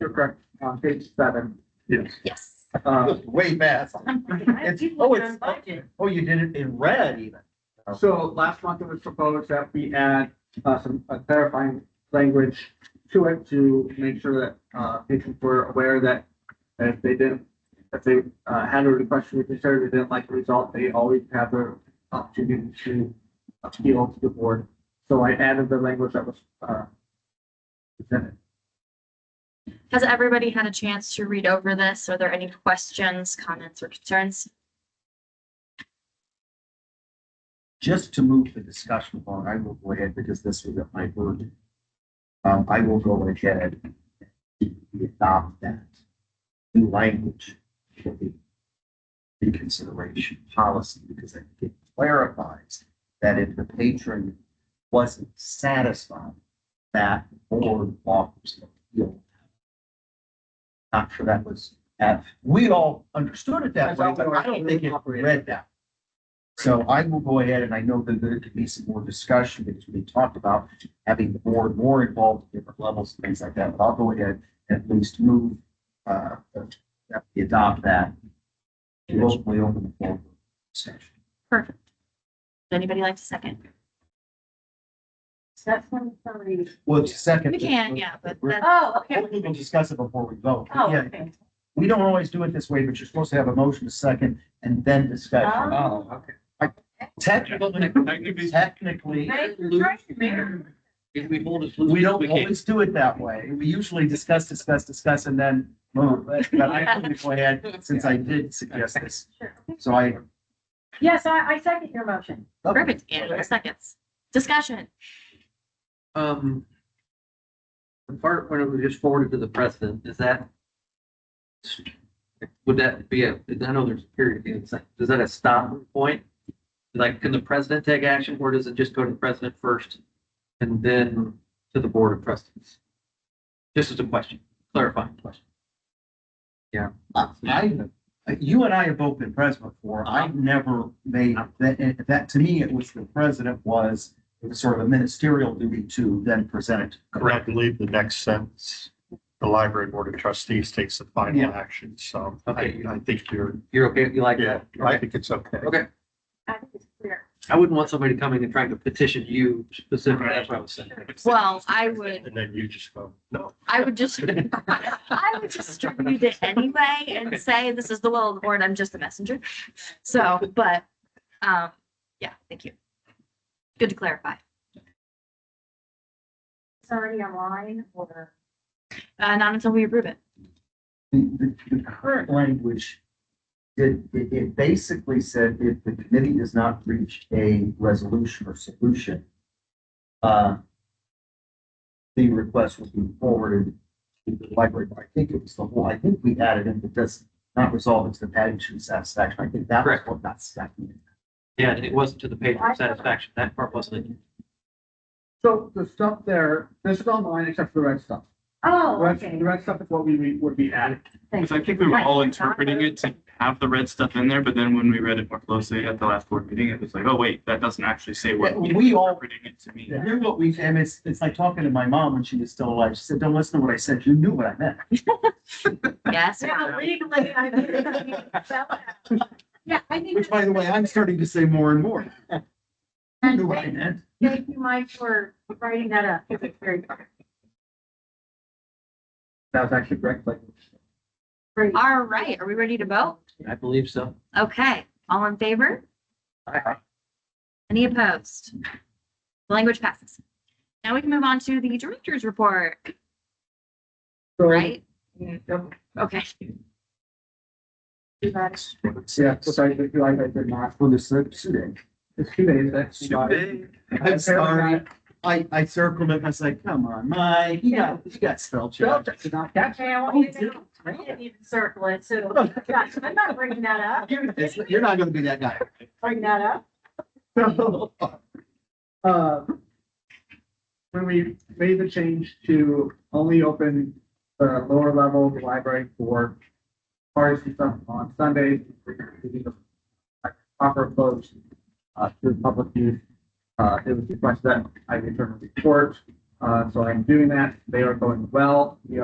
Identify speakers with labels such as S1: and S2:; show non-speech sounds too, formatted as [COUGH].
S1: You're correct, on page seven.
S2: Yes.
S3: Yes.
S1: Uh,
S4: Way fast. It's- oh, it's- Oh, you did it in red even.
S1: So last month it was proposed that we add uh, some uh, clarifying language to it to make sure that uh, patients were aware that if they didn't, if they uh, had a request to be considered, they didn't like the result, they always have their opportunity to appeal to the board. So I added the language that was uh, presented.
S3: Has everybody had a chance to read over this? Are there any questions, comments, or concerns?
S4: Just to move the discussion along, I will go ahead because this was at my word. Um, I will go ahead and adopt that new language for the reconsideration policy because I think it clarifies that if the patron wasn't satisfied, that board offers an appeal. Not sure that was, at- we all understood it that
S1: That's
S4: way,
S1: how
S4: but
S1: we
S4: I don't think it
S1: operated.
S4: read that. So I will go ahead and I know that there could be some more discussion because we talked about having the board more involved at different levels, things like that, but I'll go ahead and at least move, uh, that we adopt that. And we'll, we open the floor for discussion.
S3: Perfect. Would anybody like to second?
S5: That's one thirty.
S4: Well, it's second.
S3: We can, yeah, but
S4: We're-
S3: that's,
S5: Oh, okay.
S4: We'll even discuss it before we vote. but
S5: Oh,
S4: yeah,
S5: okay.
S4: We don't always do it this way, but you're supposed to have a motion, a second, and then discussion.
S5: Oh.
S1: okay.
S4: Technically, technically,
S5: Thank you, Thank you, Mayor.
S2: If we hold it
S4: we
S2: we
S4: don't
S2: can't.
S4: always do it that way. We usually discuss, discuss, discuss, and then move. But I am going to go ahead, since I did suggest this,
S5: Sure.
S4: so I.
S5: Yes, I, I second your motion.
S3: perfect, and four seconds. Discussion.
S2: Um. The part when it was just forwarded to the president, is that? Would that be a, I know there's a period, at the end, it's like, is that a stop point? Like, can the president take action or does it just go to the president first? And then to the board of trustees? Just as a question, clarifying question.
S4: I, you and I have both been president before. I've never made, that, that, to me, it was the president was it was sort of a ministerial duty to then present it.
S6: Correct, leave the next sentence. The library board of trustees takes the final
S2: Yeah.
S6: action, so I,
S2: Okay.
S6: I think you're,
S2: You're okay, you like
S6: yeah,
S2: that?
S6: I think it's okay.
S2: Okay,
S5: I think it's clear.
S2: I wouldn't want somebody coming and trying to petition you specifically, that's what I was saying.
S3: Well, [LAUGHS] I would,
S6: And then you just go,
S3: [LAUGHS]
S6: no.
S3: I would
S6: [LAUGHS]
S3: just, I would distribute it anyway and say, this is the will of the board, I'm just a messenger. So, but, um, yeah, thank you. Good to clarify.
S5: It's already online or.
S3: Uh, not until we approve it.
S4: The, the, the current language, it, it, it basically said if the committee does not reach a resolution or solution, uh, the request will be forwarded to the library, but I think it was the whole, I think we added in, it does not resolve it to the patron's satisfaction. I think that was
S2: Correct.
S4: what got stuck in.
S2: Yeah, and it wasn't to the patron's satisfaction, that part wasn't. in.
S1: So the stuff there, this is online except for the red stuff. The
S5: Oh,
S1: red-
S5: okay.
S1: The red stuff is what we re- would be added.
S7: Because I think we were all interpreting it to have the red stuff in there, but then when we read it more closely at the last board meeting, it was like, oh, wait, that doesn't actually say what.
S4: Yeah, we all-
S7: Interpreting it to mean.
S4: Hear what we, and it's, it's like talking to my mom when she was still alive. She said, don't listen to what I said. You knew what I meant.
S3: [LAUGHS] Yes.
S5: Yeah, legally, I think
S7: [LAUGHS]
S5: it's gonna be spelled out. [LAUGHS] Yeah, I think.
S4: starting to say more and more. You knew what I
S5: Thank
S4: meant.
S5: you, Mike, for writing that up. because It's very
S1: That was actually correct, like.
S5: great.
S3: All right, are we ready to vote?
S2: I believe so.
S3: Okay, all in favor? Any opposed? The Language passes. Now we can move on to the director's report,
S1: So-
S3: right? Okay,
S1: Yeah, so I feel like I did not,
S4: for the shooting.
S1: it's two days, that's why.
S4: I'm sorry. I, I circled it and I was like, come on, Mike, you got, you got spell
S1: Spell
S4: check.
S1: check did not catch it.
S5: Okay, I want you to know, I didn't even circle it, so gosh, I'm not bringing that up. You're
S4: It's- You're not gonna be that guy.
S5: Bring that up.
S1: [LAUGHS] Um, Uh, When we made the change to only open the lower level of the library for parties and stuff on Sundays, we were giving the proper close uh, to the public use. Uh, it was requested that I return a report, uh, so I'm doing that. They are going well. We